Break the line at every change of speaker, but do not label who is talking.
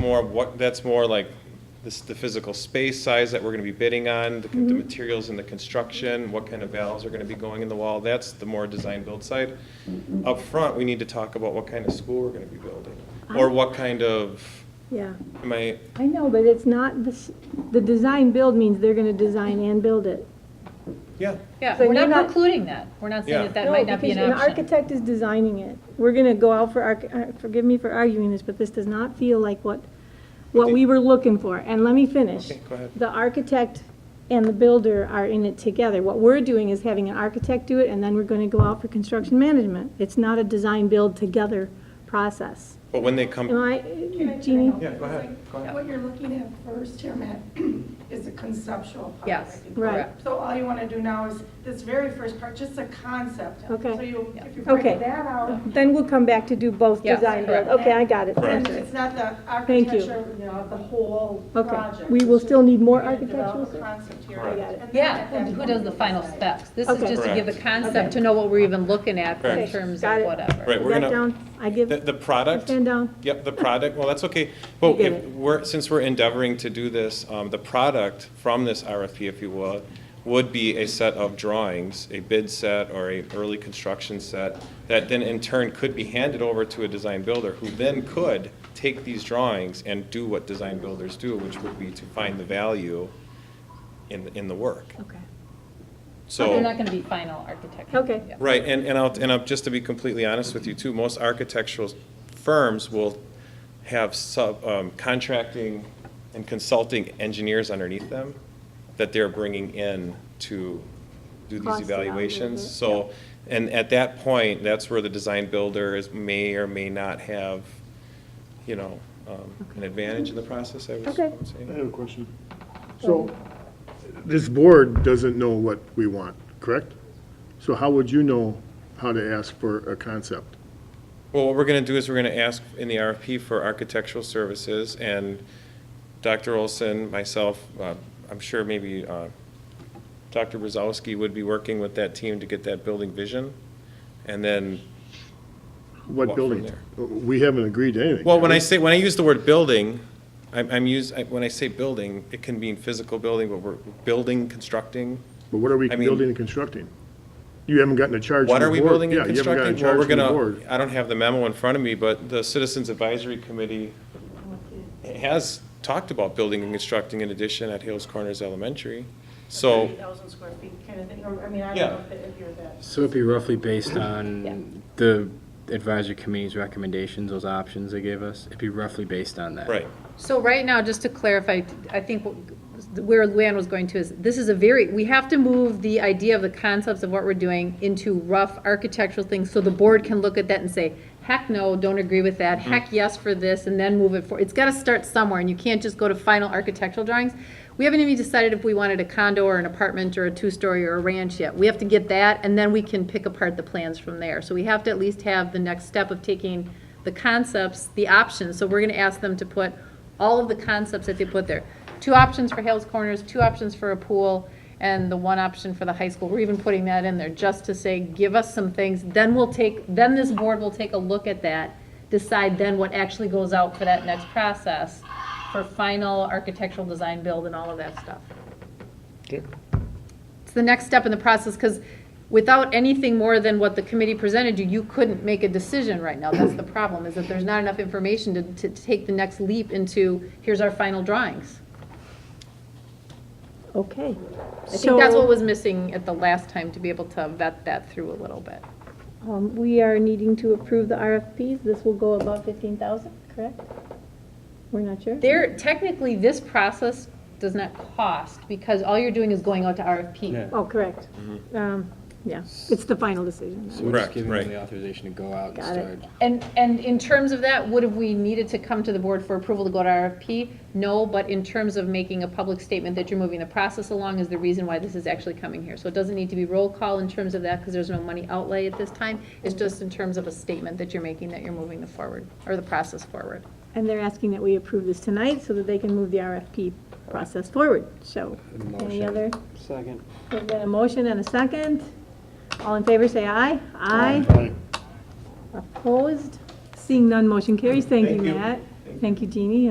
More, what, that's more like this, the physical space size that we're gonna be bidding on, the, the materials and the construction, what kind of valves are gonna be going in the wall, that's the more design-build side. Up front, we need to talk about what kind of school we're gonna be building, or what kind of,
Yeah,
am I,
I know, but it's not, this, the design build means they're gonna design and build it.
yeah,
Yeah,
So
we're
you're
not
not-
precluding that. We're not
Yeah.
saying that that
No,
might not be an
because
option.
architect is designing it. We're gonna go out for, arch- uh, forgive me for arguing this, but this does not feel like what, what we were looking for. And let me finish.
Okay, go ahead.
The architect and the builder are in it together. What we're doing is having an architect do it, and then we're gonna go out for construction management. It's not a design-build together process.
but when they
Am
come,
I,
Can
Jeannie?
Yeah, go ahead, go ahead.
What you're looking at first here, Matt, is the conceptual part.
Yes,
Right.
correct.
So all you want to do now is this very first part, just a concept.
Okay.
So you, if you
Okay.
break that out,
Then we'll come back to do both
Yes,
design build.
correct.
Okay, I got it.
then it's not the
Thank you.
architecture, you know, of the whole
Okay.
project.
We
It's
will
just
still need more
you're gonna develop a
architectural-
Concept here.
Correct. I
got it.
And then
Yeah,
at that
who who
point,
does the final
decide.
specs? This is
Okay.
just to give the
Correct.
concept, to know what we're even looking at in
Correct.
terms
Got
of
it.
whatever.
right, we're
Is that
gonna.
down? I give,
The, the product.
stand down.
Yep, the product, well, that's okay. Well,
get
if
it.
we're, since we're endeavoring to do this, um, the product from this RFP, if you will, would be a set of drawings, a bid set or a early construction set, that then in turn could be handed over to a design builder, who then could take these drawings and do what design builders do, which would be to find the value in, in the work.
Okay.
So.
But they're not gonna be final architect.
Okay.
Yeah.
Right, and, and I'll, and i will just to be completely honest with you too, most architectural firms will have sub, um, contracting and consulting engineers underneath them that they're bringing in to do these
Cost it out a little
evaluations.
bit,
So, and at that point, that's where the design builder is, may or may not have, you know, um, an
Okay.
advantage in the process, I would I
Okay.
would say.
I have a question. So, this board doesn't know what we want, correct? So how would you know how to ask for a concept?
Well, what we're going to do is we're going to ask in the RFP for architectural services, and Dr. Olson, myself, uh, I'm sure maybe uh, Dr. Brzezowski would be working with that team to get that building vision, and then, What
What
from
building? We haven't agreed to anything.
well, when I
have we?
say, when I use the word building, I'm, I'm use, I- when I say building, it can mean physical building, but we're building, constructing.
But what are we
I mean-
building and constructing? You haven't gotten a charge from
What
the
are
board.
we building and
Yeah, you haven't
constructing? Well,
gotten a
we're
charge from the
gonna-
board.
I don't have the memo in front of me, but the Citizens Advisory Committee has talked about building and constructing an addition at Hales Corners Elementary. So,
30,000 square feet kind of thing, or, I mean, I
Yeah.
don't know if you're that.
So it'd be roughly based on the advisory committee's recommendations, those options they gave us, it'd be roughly based on that.
right,
So right now, just to clarify, I think where Luann was going to is, this is a very, we have to move the idea of the concepts of what we're doing into rough architectural things, so the board can look at that and say, heck no, don't agree with that, heck yes for this, and then move it forward. It's gotta start somewhere, and you can't just go to final architectural drawings. We haven't even decided if we wanted a condo or an apartment or a two-story or a ranch yet. We have to get that, and then we can pick apart the plans from there. So we have to at least have the next step of taking the concepts, the options. So we're gonna ask them to put all of the concepts that they put there. Two options for Hales Corners, two options for a pool, and the one option for the high school. We're even putting that in there just to say, give us some things, then we'll take, then this board will take a look at that, decide then what actually goes out for that next process for final architectural design build and all of that stuff. It's the next step in the process, because without anything more than what the committee presented you, you couldn't make a decision right now. That's the problem, is that there's not enough information to, to take the next leap into, here's our final drawings.
Okay.
I think that's what was missing at the last time, to be able to vet that through a little bit.
Um, we are needing to approve the RFPs. This will go above fifteen thousand, correct? We're not sure.
There, technically, this process does not cost, because all you're doing is going out to RFP.
Oh, correct.
Mm-hmm.
Um, yeah, it's the final decision.
So we're
Correct,
just giving
right.
them the authorization to go out and
Got it.
start.
And, and in terms of that, would have we needed to come to the board for approval to go to RFP? No, but in terms of making a public statement that you're moving the process along is the reason why this is actually coming here. So it doesn't need to be roll call in terms of that, because there's no money outlay at this time. It's just in terms of a statement that you're making that you're moving the forward, or the process forward.
And they're asking that we approve this tonight so that they can move the RFP process forward. So, any
Motion.
other?
Second.
There's been a motion and a second. All in favor, say aye. Aye.
Aye.
Opposed? Seeing none, motion carries. Thank you,
Thank you.
Matt. Thank you, Jeannie.